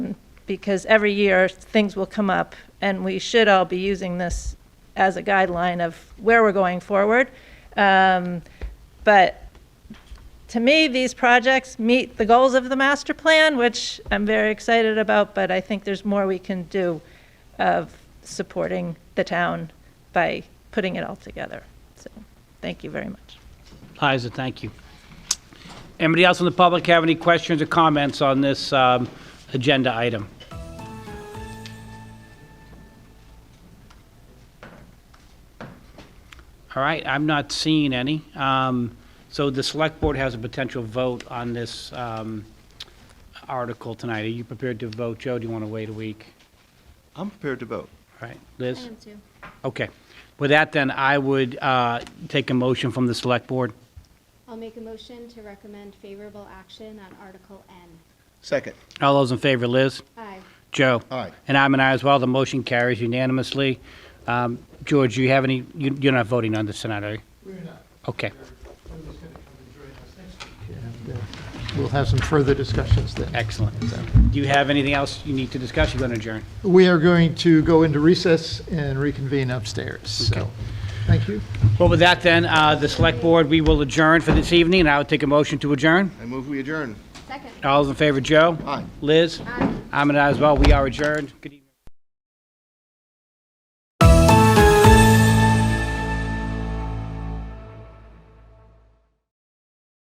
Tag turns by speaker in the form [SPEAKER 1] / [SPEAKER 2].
[SPEAKER 1] because every year, things will come up, and we should all be using this as a guideline of where we're going forward. Um, But to me, these projects meet the goals of the master plan, which I'm very excited about, but I think there's more we can do of supporting the town by putting it all together. So, thank you very much.
[SPEAKER 2] Liza, thank you. Anybody else in the public have any questions or comments on this um, agenda item? All right, I'm not seeing any. Um, So the select board has a potential vote on this um, article tonight. Are you prepared to vote? Joe, do you want to wait a week?
[SPEAKER 3] I'm prepared to vote.
[SPEAKER 2] All right, Liz? I am too. Okay. With that, then, I would uh, take a motion from the select board.
[SPEAKER 4] I'll make a motion to recommend favorable action on Article N.
[SPEAKER 3] Second.
[SPEAKER 2] All those in favor, Liz?
[SPEAKER 4] Aye.
[SPEAKER 2] Joe?
[SPEAKER 3] Aye.
[SPEAKER 2] And I'm an aye as well. The motion carries unanimously. Um, George, do you have any, you- you're not voting on this tonight, are you? We're not. Okay,
[SPEAKER 5] And uh, we'll have some further discussions then.
[SPEAKER 2] excellent. Do you have anything else you need to discuss? You're going to adjourn.
[SPEAKER 5] We are going to go into recess and reconvene upstairs, so, thank you.
[SPEAKER 2] Well, with that then, uh, the select board, we will adjourn for this evening, and I would take a motion to adjourn.
[SPEAKER 3] I move we adjourn.
[SPEAKER 4] Second.
[SPEAKER 2] All those in favor, Joe?
[SPEAKER 3] Aye.
[SPEAKER 2] Liz?
[SPEAKER 4] Aye.
[SPEAKER 2] I'm an aye as well. We are adjourned. Good evening.